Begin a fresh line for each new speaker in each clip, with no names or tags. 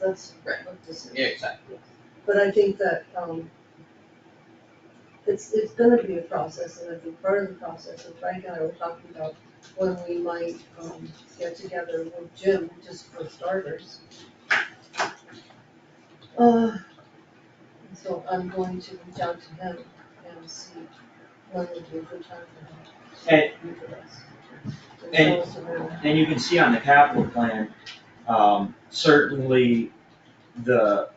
that's
Right.
of decision.
Yeah, exactly.
But I think that, um, it's, it's gonna be a process, and I think part of the process, and Frank and I were talking about when we might, um, get together with Jim, just for starters. Uh, and so I'm going to reach out to him and see when would be a good time for him
And-
to meet with us.
and-
show us around.
And you can see on the capital plan, um, certainly the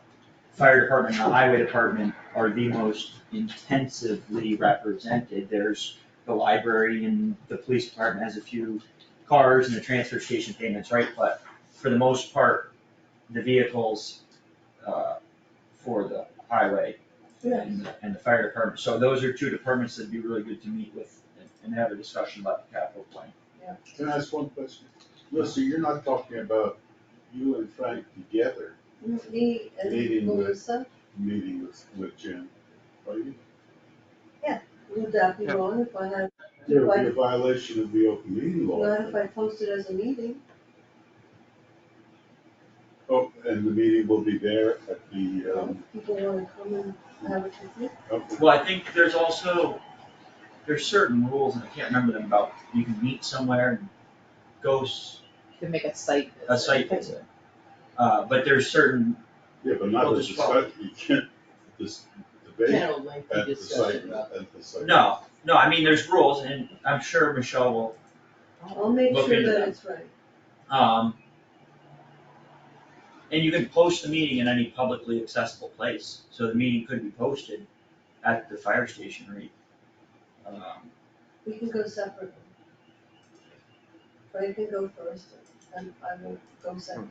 fire department and the highway department are the most intensively represented. There's the library and the police department has a few cars and the transfer station payments, right? But for the most part, the vehicles, uh, for the highway
Yeah,
and, the- and the fire department. So those are two departments that'd be really good to meet with and- and have a discussion about the capital plan.
Can I ask one question? Listen, you're not talking about you and Frank together
me and
Meeting with-
Melissa,
meeting with, with Jim, are you?
would that be wrong if I had,
There would
Why-
be a violation of the open meeting law.
not if I posted as a meeting?
Oh, and the meeting will be there at the, um,
People wanna come and have a picnic.
okay.
Well, I think there's also, there's certain rules, and I can't remember them, about you can meet somewhere and go s-
You can make a site.
a site visit. Uh, but there's certain,
yeah, but not
Well,
a
just follow.
discussion, you can't, this debate
General lengthy
at the site,
discussion about.
at the site.
no, no, I mean, there's rules, and I'm sure Michelle will,
I'll make
Look
sure
into
that
that.
it's right.
um. And you can post the meeting in any publicly accessible place, so the meeting could be posted at the fire station or. um,
We can go separately. Frank can go first and I will go second.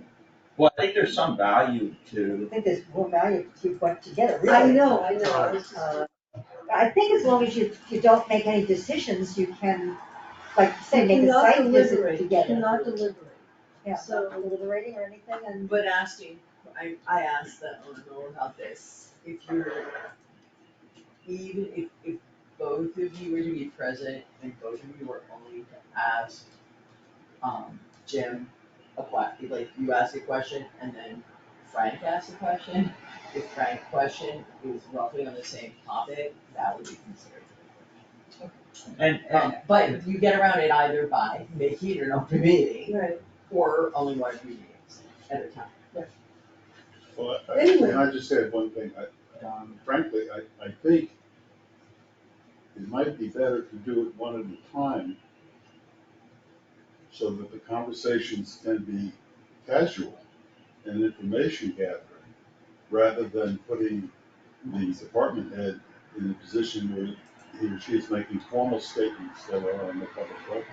Well, I think there's some value to,
I think there's more value if you work together, really.
I know, I know, I was just-
Uh, I think as long as you, you don't make any decisions, you can, like you say,
You
make a
cannot
site visit
deliberate, you
together.
Cannot deliberate.
Yeah,
So-
not deliberating or anything, and
But asking, I, I asked that on and on about this, if you're, even if, if both of you were to be present and both of you were only to ask, um, Jim a que- like you ask a question and then Frank asks a question, if Frank's question is roughly on the same topic, that would be considered.
and, and
Um, but you get around it either by making it an open meeting
Right,
or only one of your meetings at a time.
Well, I-
Anyway.
and I just said one thing, I, um, frankly, I, I think it might be better to do it one at a time so that the conversations can be casual and information gathering, rather than putting the department head in a position where he or she is making formal statements that are on the public record.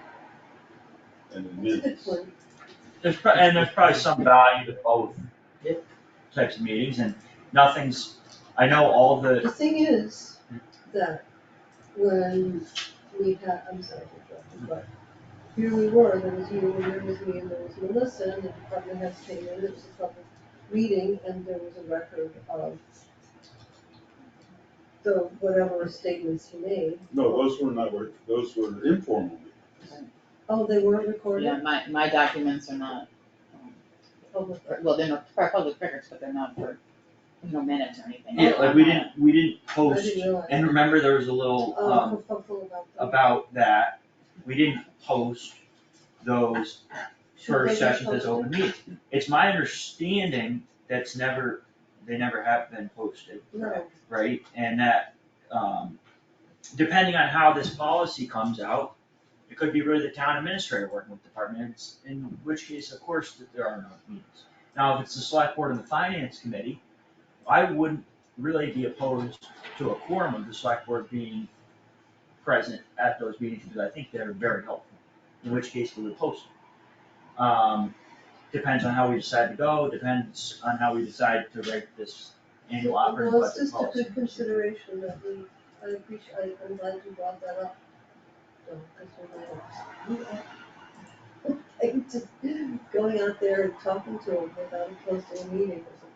And in
that's a good
minutes.
point.
There's, pro- and there's probably some value to both
Yep.
types of meetings, and nothing's, I know all
The
the,
thing is that when we had, I'm sorry to interrupt you, but here we were, there was you, and there was me, and there was Melissa, and the department heads came in, it was a public meeting, and there was a record of the, whatever statements he made.
No, those were not, were- those were informal meetings.
Oh, they weren't recorded?
Yeah, my, my documents are not, um,
Oh,
for- well, they're not, for public records, but they're not for, you know, minutes or anything.
yeah, like, we didn't, we didn't
I
post,
didn't realize.
and remember, there was a little, um,
Oh, I'm hopeful about that.
about that, we didn't post those
Should they
first
be
sessions as
posted?
open meetings. It's my understanding that's never, they never have been posted.
No,
right? And that, um, depending on how this policy comes out, it could be really the town administrator working with departments, in which case, of course, that there are no meetings. Now, if it's the select board and the finance committee, I wouldn't really be opposed to a quorum of the select board being present at those meetings, because I think they're very helpful, in which case we would post it. Um, depends on how we decide to go, depends on how we decide to write this annual operating
well,
budget
it's just a
policy.
good consideration that we, I appreciate, I- I'm glad you brought that up. So, 'cause we're like, we are- Like, just going out there and talking to them without posting a meeting or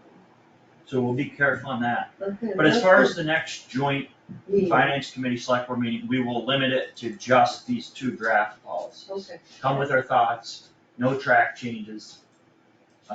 So we'll be careful on that.
something. Okay,
But as
that's
far
the
as the next joint
meeting.
finance committee select board meeting, we will limit it to just these two draft policies.
Okay,
Come with our thoughts, no track changes,